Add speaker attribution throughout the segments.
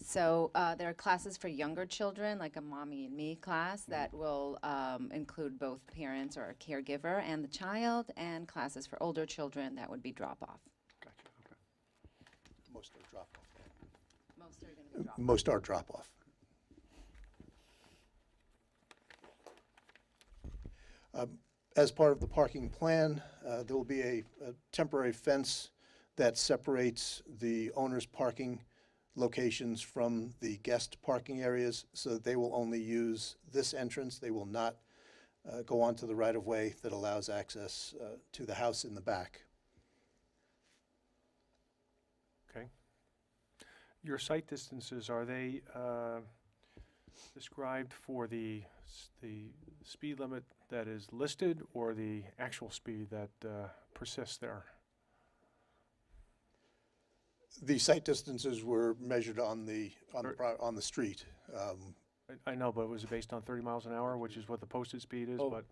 Speaker 1: So uh, there are classes for younger children, like a mommy and me class
Speaker 2: Mm-hmm.
Speaker 1: that will um, include both parents or a caregiver and the child, and classes for older children that would be drop off.
Speaker 3: Gotcha, okay.
Speaker 4: Most are drop-off.
Speaker 1: Most are going to be drop.
Speaker 4: Uh, Most are drop-off. Um, As part of the parking plan, uh, there will be a a temporary fence that separates the owner's parking locations from the guest parking areas, so that they will only use this entrance. They will not uh, go onto the right-of-way that allows access uh, to the house in the back.
Speaker 3: Okay. Your site distances, are they uh, described for the, s- the speed limit that is listed or the actual speed that uh, persists there?
Speaker 4: The site distances were measured on the, on the,
Speaker 3: Or-
Speaker 4: pro- on the street. um,
Speaker 3: I- I know, but was it based on 30 miles an hour, which is what the posted speed is,
Speaker 5: Oh,
Speaker 3: but,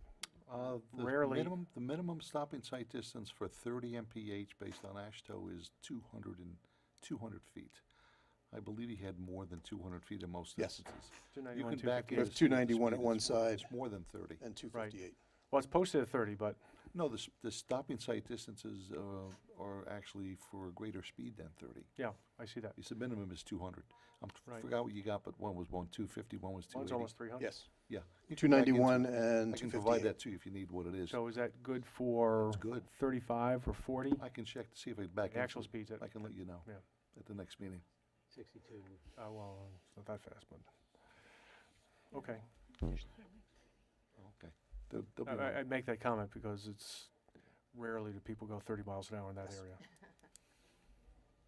Speaker 5: Uh, the
Speaker 3: Rarely-
Speaker 5: minimum- The minimum stopping sight distance for 30 MPH based on ASHTO is 200 and, 200 feet. I believe he had more than 200 feet in most
Speaker 4: Yes.
Speaker 5: instances. You
Speaker 3: 291,
Speaker 5: can back
Speaker 3: 250.
Speaker 5: in.
Speaker 4: With
Speaker 5: to see what the
Speaker 4: 291 at
Speaker 5: speed
Speaker 4: one
Speaker 5: is. Well,
Speaker 4: side.
Speaker 5: It's more than 30.
Speaker 4: and two
Speaker 3: Right.
Speaker 4: fifty-eight.
Speaker 3: Well, it's posted at 30, but,
Speaker 5: No, the, s- the stopping sight distances uh, are actually for a greater speed than 30.
Speaker 3: yeah, I see that.
Speaker 5: He said minimum is 200. I'm- I
Speaker 3: Right.
Speaker 5: forgot what you got, but one was one 250, one was
Speaker 3: One's
Speaker 5: 280.
Speaker 3: almost 300.
Speaker 4: Yes,
Speaker 5: Yeah. You
Speaker 4: two
Speaker 5: can back into-
Speaker 4: ninety-one and
Speaker 5: I
Speaker 4: two
Speaker 5: can provide
Speaker 4: fifty-eight.
Speaker 5: that to you if you need what it is.
Speaker 3: So is that good for
Speaker 5: It's good.
Speaker 3: 35 or 40?
Speaker 5: I can check to see if I back
Speaker 3: The actual
Speaker 5: into it.
Speaker 3: speeds at,
Speaker 5: I can let you know
Speaker 3: yeah,
Speaker 5: at the next meeting.
Speaker 6: 62.
Speaker 3: Uh, well, it's not that fast, but, okay.
Speaker 5: Okay. They'll- they'll be
Speaker 3: I-
Speaker 5: around.
Speaker 3: I, I make that comment because it's rarely do people go thirty miles an hour in that area.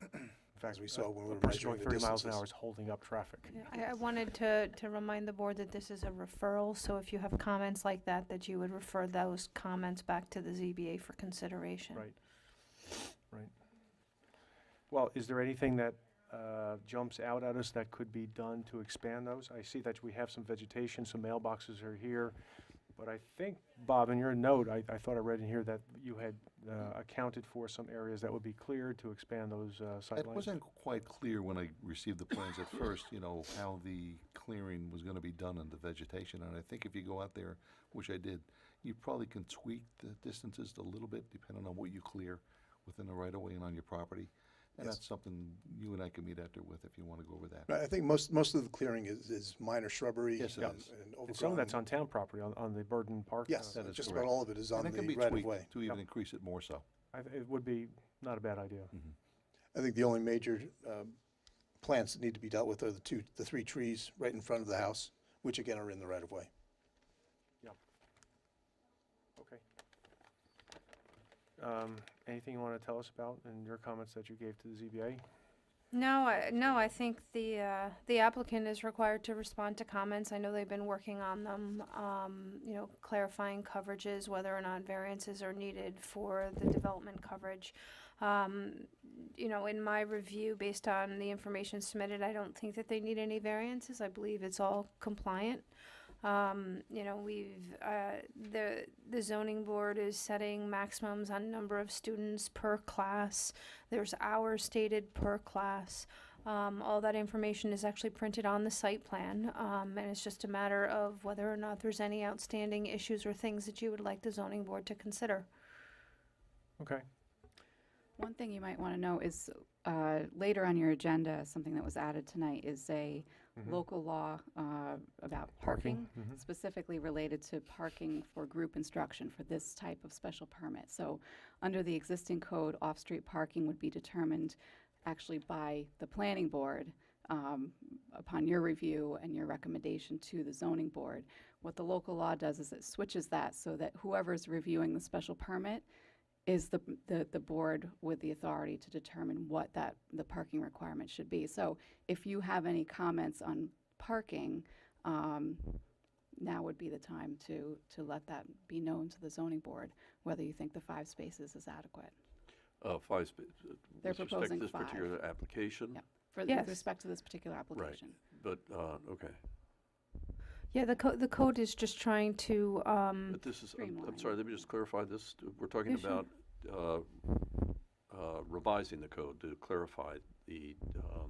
Speaker 3: In fact,
Speaker 4: we
Speaker 3: a-
Speaker 4: saw when we
Speaker 3: a
Speaker 4: were
Speaker 3: person going
Speaker 4: measuring the
Speaker 3: Thirty miles an
Speaker 4: distances.
Speaker 3: hour is holding up traffic.
Speaker 2: Yeah, I, I wanted to, to remind the board that this is a referral, so if you have comments like that, that you would refer those comments back to the ZBA for consideration.
Speaker 3: Right, right. Well, is there anything that uh, jumps out at us that could be done to expand those? I see that we have some vegetation, some mailboxes are here, but I think, Bob, in your note, I, I thought I read in here that you had uh, accounted for some areas that would be cleared to expand those uh, sightlines.
Speaker 5: It wasn't quite clear when I received the plans at first, you know, how the clearing was gonna be done and the vegetation, and I think if you go out there, which I did, you probably can tweak the distances a little bit depending on what you clear within the right of way and on your property. And
Speaker 4: Yes.
Speaker 5: that's something you and I can meet after with if you wanna go over that.
Speaker 4: Right, I think most, most of the clearing is, is minor shrubbery.
Speaker 5: Yes, it
Speaker 4: um,
Speaker 5: is.
Speaker 4: And
Speaker 3: And some of that's
Speaker 4: overgrown.
Speaker 3: on town property, on, on the Burden Park.
Speaker 4: Yes,
Speaker 3: uh,
Speaker 5: That is
Speaker 4: just about
Speaker 5: correct.
Speaker 4: all of it is on
Speaker 5: And it can
Speaker 4: the
Speaker 5: be
Speaker 4: right of way.
Speaker 5: tweaked to even increase it more so.
Speaker 3: I th- It would be not a bad idea.
Speaker 4: I think the only major um, plants that need to be dealt with are the two, the three trees right in front of the house, which again are in the right of way.
Speaker 3: Okay. Um, Anything you want to tell us about in your comments that you gave to the ZBA?
Speaker 2: No, I, no, I think the, uh, the applicant is required to respond to comments, I know they've been working on them, um, you know, clarifying coverages, whether or not variances are needed for the development coverage. Um, you know, in my review, based on the information submitted, I don't think that they need any variances, I believe it's all compliant. Um, you know, we've, uh, the, the zoning board is setting maximums on number of students per class. There's hours stated per class. Um, all that information is actually printed on the site plan, um, and it's just a matter of whether or not there's any outstanding issues or things that you would like the zoning board to consider.
Speaker 3: Okay.
Speaker 7: One thing you might want to know is, uh, later on your agenda, something that was added tonight is a
Speaker 3: Mhm.
Speaker 7: local law uh, about parking,
Speaker 3: Mhm.
Speaker 7: specifically related to parking for group instruction for this type of special permit. So, under the existing code, off-street parking would be determined actually by the planning board um, upon your review and your recommendation to the zoning board. What the local law does is it switches that so that whoever's reviewing the special permit is the, the, the board with the authority to determine what that, the parking requirement should be. So if you have any comments on parking, um, now would be the time to, to let that be known to the zoning board, whether you think the five spaces is adequate.
Speaker 8: Uh, five spaces.
Speaker 7: They're
Speaker 8: With respect to
Speaker 7: proposing
Speaker 8: this
Speaker 7: five.
Speaker 8: particular application?
Speaker 7: Yep. For, with
Speaker 2: Yes.
Speaker 7: respect to this particular application.
Speaker 8: But, uh, okay.
Speaker 2: Yeah, the code, the code is just trying to, um,
Speaker 8: But this is, I'm- I'm
Speaker 7: Streamline.
Speaker 8: sorry, let me just clarify this. We're talking
Speaker 2: Yeah, sure.
Speaker 8: about uh, uh, revising the code to clarify the um,